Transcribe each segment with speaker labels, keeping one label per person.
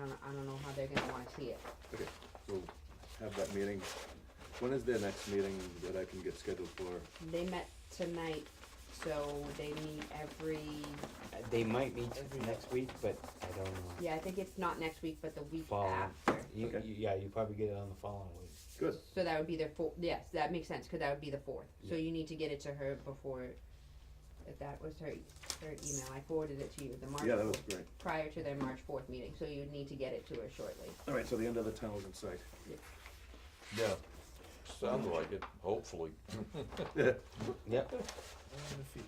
Speaker 1: don't, I don't know how they're gonna wanna see it.
Speaker 2: Okay, so have that meeting. When is their next meeting that I can get scheduled for?
Speaker 1: They met tonight, so they meet every,
Speaker 3: Uh, They might meet next week, but I don't know.
Speaker 1: yeah, I think it's not next week, but the week
Speaker 3: Following.
Speaker 1: after.
Speaker 3: You,
Speaker 2: Okay.
Speaker 3: you, yeah, you probably get it on the following week.
Speaker 2: Good.
Speaker 1: So that would be their four, yes, that makes sense, cause that would be the fourth, so you need to get it to her before, if that was her, her email, I forwarded it to you, the March
Speaker 2: Yeah, that was
Speaker 1: fourth-
Speaker 2: great.
Speaker 1: prior to their March fourth meeting, so you'd need to get it to her shortly.
Speaker 2: All right, so the end of the tunnel's in sight.
Speaker 4: Yeah, sounds like it, hopefully.
Speaker 3: Yep.
Speaker 5: I wonder if he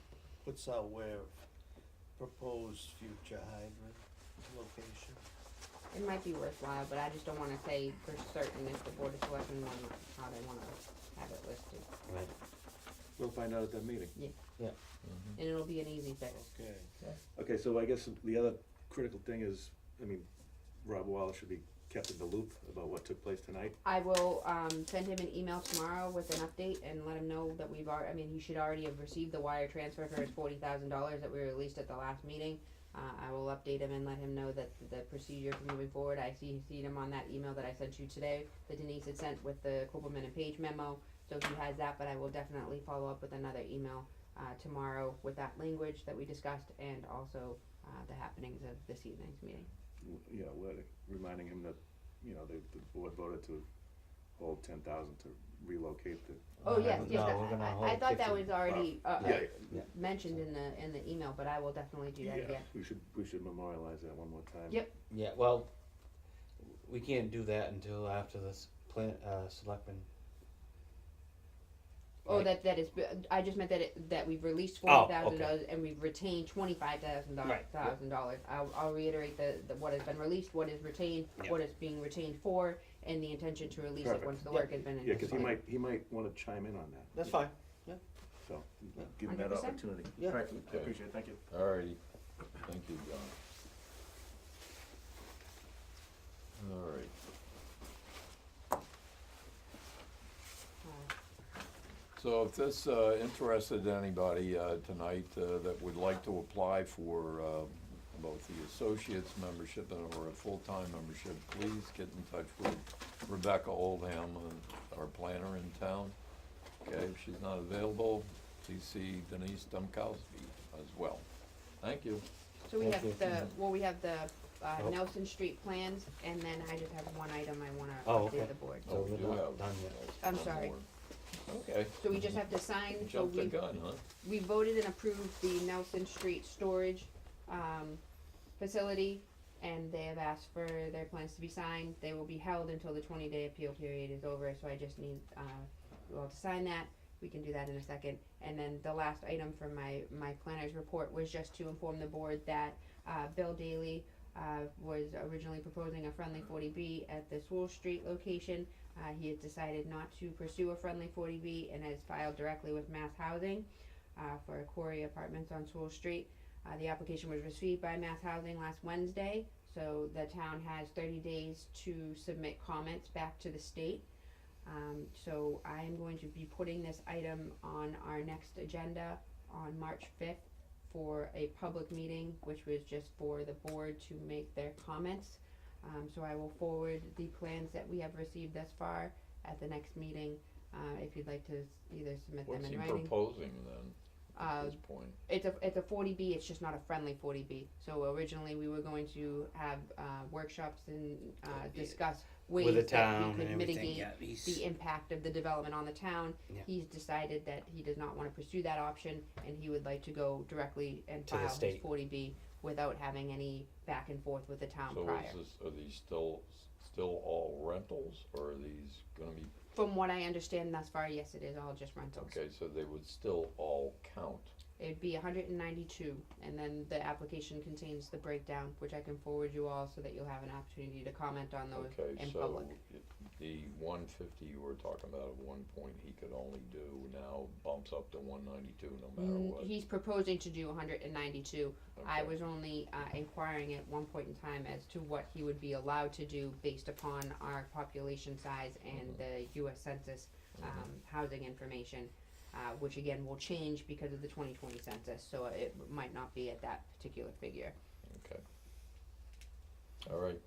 Speaker 5: puts out where proposed future hydrant location.
Speaker 1: It might be worthwhile, but I just don't wanna say for certain if the board of selectmen want, how they wanna have it listed,
Speaker 3: Right.
Speaker 2: We'll find out at that meeting.
Speaker 1: and it'll be an easy fix.
Speaker 5: Okay.
Speaker 2: Okay, so I guess the other critical thing is, I mean, Rob Wallace should be kept in the loop about what took place tonight.
Speaker 1: I will, um, send him an email tomorrow with an update and let him know that we've already, I mean, he should already have received the wire transfer for his forty thousand dollars that we released at the last meeting. Uh, I will update him and let him know that the procedure for moving forward, I see, seen him on that email that I sent you today, that Denise had sent with the Copeland and Page memo. So he has that, but I will definitely follow up with another email, uh, tomorrow with that language that we discussed and also, uh, the happenings of this evening's meeting.
Speaker 2: w- you know, let- reminding him that, you know, the, the board voted to hold ten thousand to relocate the,
Speaker 1: Oh,
Speaker 3: Uh,
Speaker 1: yes, yes,
Speaker 3: no,
Speaker 1: that-
Speaker 3: we're gonna
Speaker 1: I- I, I
Speaker 3: hold
Speaker 1: thought that
Speaker 3: 50.
Speaker 1: was already, uh, uh,
Speaker 2: yeah,
Speaker 1: mentioned in the, in the email, but I will definitely do that
Speaker 2: yeah,
Speaker 1: again.
Speaker 2: we should, we should memorialize that one more time.
Speaker 1: Yep.
Speaker 3: Yeah, well, we can't do that until after this plan, uh, selectmen.
Speaker 1: Oh,
Speaker 3: Right.
Speaker 1: that, that is, I just meant that it, that we've released
Speaker 3: Oh,
Speaker 1: forty
Speaker 3: okay.
Speaker 1: thousand dollars and we've retained twenty-five thousand dollars,
Speaker 3: Right, yeah.
Speaker 1: thousand dollars. I'll, I'll reiterate the, the, what has been released, what is retained,
Speaker 3: Yeah.
Speaker 1: what is being retained for, and the intention to release it
Speaker 2: Perfect.
Speaker 1: once the
Speaker 3: Yeah.
Speaker 1: work has been.
Speaker 2: Yeah, cause he
Speaker 1: completed.
Speaker 2: might, he might wanna chime in on that,
Speaker 3: That's fine.
Speaker 2: so, give him that
Speaker 1: 100%.
Speaker 2: opportunity.
Speaker 3: Yeah.
Speaker 2: Alright, I appreciate it, thank you.
Speaker 4: Alrighty, thank you, John. Alright,
Speaker 1: Uh,
Speaker 4: so if this uh, interested anybody uh, tonight uh, that would like to apply for uh, both the associate's membership and or a full-time membership, please get in touch with Rebecca Oldham, uh, our planner in town. Okay, if she's not available, please see Denise Domkowski as well. Thank you.
Speaker 1: So we
Speaker 3: Thank
Speaker 1: have
Speaker 3: you.
Speaker 1: the, well, we have the, uh,
Speaker 3: Oh.
Speaker 1: Nelson Street plans, and then I just have one item I wanna
Speaker 3: Oh, okay.
Speaker 1: update the board.
Speaker 3: So
Speaker 4: Oh, we
Speaker 3: we're
Speaker 4: do
Speaker 3: not
Speaker 4: have
Speaker 3: done yet.
Speaker 1: I'm
Speaker 4: one
Speaker 1: sorry.
Speaker 4: more. Okay.
Speaker 1: So we just have to sign, so
Speaker 4: Jumped the
Speaker 1: we
Speaker 4: gun, huh?
Speaker 1: we voted and approved the Nelson Street storage, um, facility, and they have asked for their plans to be signed. They will be held until the twenty day appeal period is over, so I just need, uh, you all to sign that. We can do that in a second. And then the last item from my, my planner's report was just to inform the board that, uh, Bill Daly, uh, was originally proposing a friendly forty B at the Swole Street location. Uh, he has decided not to pursue a friendly forty B and has filed directly with Mass Housing uh, for Quarry Apartments on Sewell Street. Uh, the application was received by Mass Housing last Wednesday, so the town has thirty days to submit comments back to the state. Um, so I am going to be putting this item on our next agenda on March fifth for a public meeting, which was just for the board to make their comments. Um, so I will forward the plans that we have received thus far at the next meeting, uh, if you'd like to s- either submit them
Speaker 4: What's he
Speaker 1: in writing.
Speaker 4: proposing then,
Speaker 1: Uh,
Speaker 4: at this point?
Speaker 1: it's a it's a forty B. It's just not a friendly forty B. So originally we were going to have uh, workshops and uh,
Speaker 3: Yeah.
Speaker 1: discuss ways
Speaker 3: With the
Speaker 1: that we
Speaker 3: town
Speaker 1: could
Speaker 3: and everything,
Speaker 1: mitigate
Speaker 3: yeah, he's,
Speaker 1: the impact of the development on the town.
Speaker 3: Yeah.
Speaker 1: He's decided that he does not want to pursue that option, and he would like to go directly and
Speaker 3: To the
Speaker 1: file his
Speaker 3: state.
Speaker 1: forty B without having any back and forth with the town
Speaker 4: So
Speaker 1: prior.
Speaker 4: is this, are these still, still all rentals or are these gonna be,
Speaker 1: From what I understand thus far, yes, it is all just rentals.
Speaker 4: okay, so they would still all count?
Speaker 1: It'd be 192, and then the application contains the breakdown, which I can forward you all so that you'll have an opportunity to comment on those
Speaker 4: Okay,
Speaker 1: in
Speaker 4: so
Speaker 1: public.
Speaker 4: it- the one fifty you were talking about at one point, he could only do now bumps up to one ninety-two no matter
Speaker 1: Mm,
Speaker 4: what.
Speaker 1: He's proposing to do 192. I
Speaker 4: Okay.
Speaker 1: was only uh, inquiring at one point in time as to what he would be allowed to do based upon our population size and
Speaker 4: Mm-hmm.
Speaker 1: the U.S. Census um, housing information, uh, which again will change because of the 2020 census, so it might not be at that particular figure.
Speaker 4: Okay. All right,